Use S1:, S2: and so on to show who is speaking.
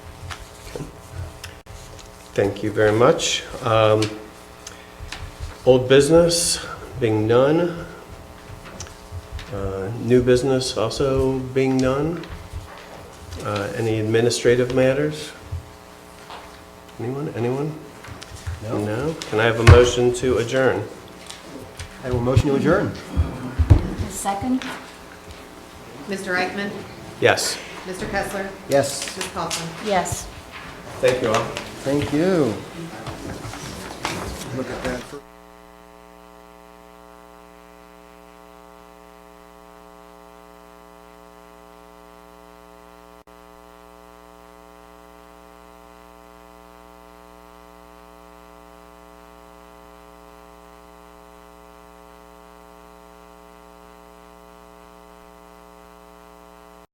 S1: Thank you very much. Um, Old business, being none. Uh, New business also being none. Uh, Any administrative matters? Anyone, anyone? No? Can I have a motion to adjourn?
S2: I will motion to adjourn.
S3: Second?
S4: Mr. Eichmann,
S1: Yes.
S4: Mr. Kessler,
S2: Yes,
S4: Ms. Coughlin.
S3: Yes.
S1: Thank you all.
S2: thank you.